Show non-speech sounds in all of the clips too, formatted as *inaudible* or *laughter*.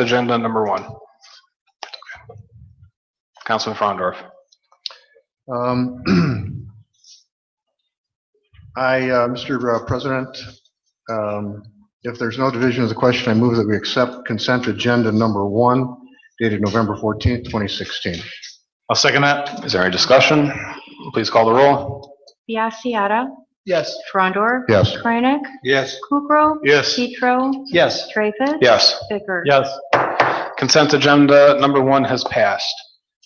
Agenda number one. Councilman Frondorf. Um, *clears throat* I, uh, Mr. President, um, if there's no division of the question, I move that we accept consent agenda number one dated November 14th, 2016. I'll second that. Is there any discussion? Please call the roll. Biassiata. Yes. Frondor. Yes. Kranek. Yes. Kukrow. Yes. Petro. Yes. Treffus. Yes. Bicker. Yes. Consent agenda number one has passed.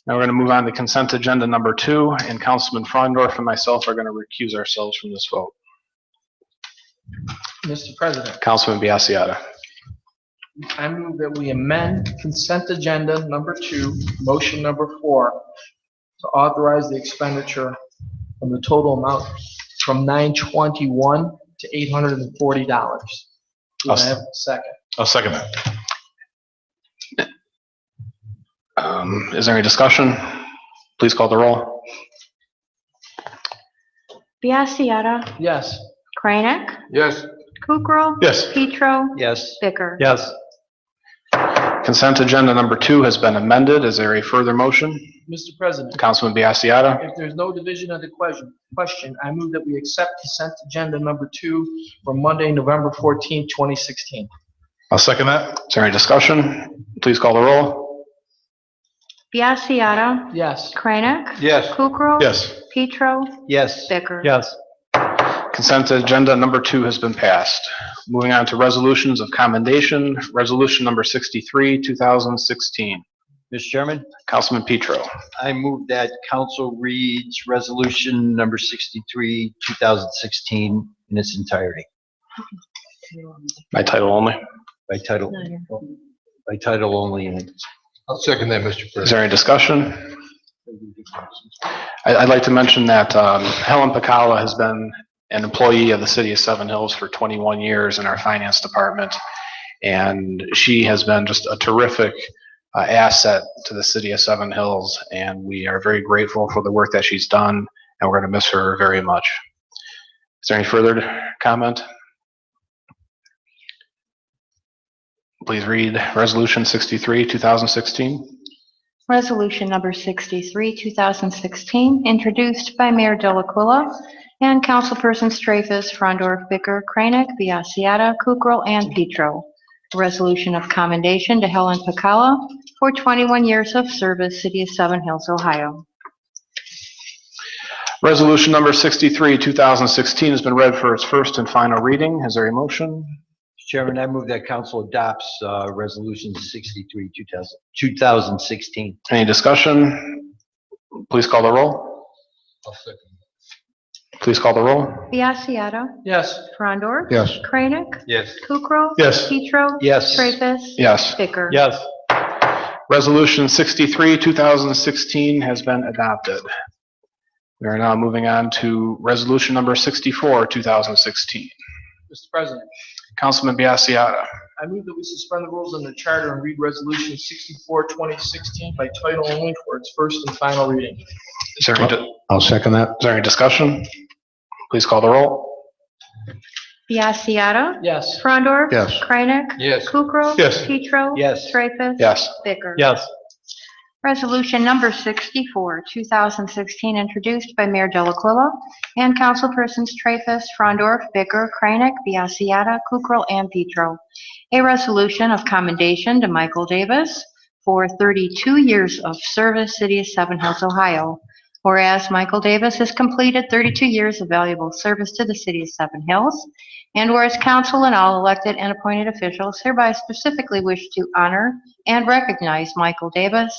Now we're going to move on to consent agenda number two, and Councilman Frondorf and myself are going to recuse ourselves from this vote. Mr. President, Councilman Biassiata. I move that we amend consent agenda number two, motion number four, to authorize the expenditure from the total amount from 921 to $840. Do I I'll s- have a second? I'll second that. Um, Is there any discussion? Please call the roll. Biassiata. Yes. Kranek. Yes. Kukrow. Yes. Petro. Yes. Bicker. Yes. Consent agenda number two has been amended. Is there a further motion? Mr. President, Councilman Biassiata. If there's no division of the question, question, I move that we accept consent agenda number two for Monday, November 14, 2016. I'll second that. Is there any discussion? Please call the roll. Biassiata. Yes. Kranek. Yes. Kukrow. Yes. Petro. Yes. Bicker. Yes. Consent agenda number two has been passed. Moving on to resolutions of commendation, resolution number 63, 2016. Mr. Chairman, Councilman Petro. I move that council reads resolution number 63, 2016 in its entirety By title only. by title, by title only. and it's- I'll second that, Mr. Is there any discussion? I- I'd like to mention that um, Helen Pacala has been an employee of the city of Seven Hills for 21 years in our finance department, and she has been just a terrific uh, asset to the city of Seven Hills, and we are very grateful for the work that she's done, and we're going to miss her very much. Is there any further comment? Please read Resolution 63, 2016. Resolution number 63, 2016, introduced by Mayor Delacqua and councilpersons Traffus, Frondor, Bicker, Kranek, Biassiata, Kukrow, and Petro. Resolution of commendation to Helen Pacala for 21 years of service, City of Seven Hills, Ohio. Resolution number 63, 2016 has been read for its first and final reading. Is there a Mr. motion? Chairman, I move that council adopts uh, resolution 63, 2000 2016. Any discussion? Please call the roll. Please call the roll. Biassiata, Yes. Frondor, Yes. Kranek, Yes. Kukrow, Yes. Petro, Yes. Traffus, Yes. Bicker. Yes. Resolution 63, 2016 has been adopted. We are now moving on to resolution number 64, 2016. Mr. President, Councilman Biassiata. I move that we suspend the rules on the charter and read resolution 64, 2016 by title only for its first and final reading. Is there any di- is I'll second that. there any discussion? Please call the roll. Biassiata, Yes. Frondor, Yes. Kranek, Yes. Kukrow, Yes. Petro, Yes. Traffus, Yes. Bicker. Yes. Resolution number 64, 2016, introduced by Mayor Delacqua and councilpersons Traffus, Frondorf, Bicker, Kranek, Biassiata, Kukrow, and Petro. A resolution of commendation to Michael Davis for 32 years of service, City of Seven Hills, Ohio. Whereas Michael Davis has completed 32 years of valuable service to the City of Seven Hills, and whereas council and all elected and appointed officials hereby specifically wish to honor and recognize Michael Davis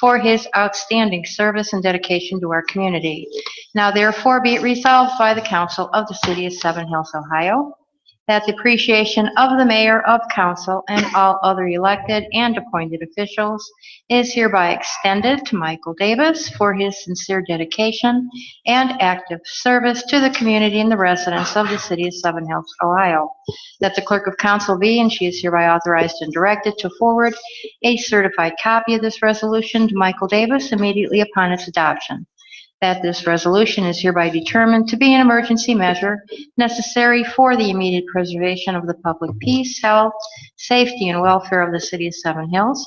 for his outstanding service and dedication to our community. Now therefore be it resolved by the Council of the City of Seven Hills, Ohio, that the appreciation of the mayor of council and all other elected and appointed officials is hereby extended to Michael Davis for his sincere dedication and active service to the community and the residents of the City of Seven Hills, Ohio. That the clerk of council be, and she is hereby authorized and directed to forward a certified copy of this resolution to Michael Davis immediately upon its adoption. that this resolution is hereby determined to be an emergency measure necessary for the immediate preservation of the public peace, health, safety, and welfare of the city of Seven Hills,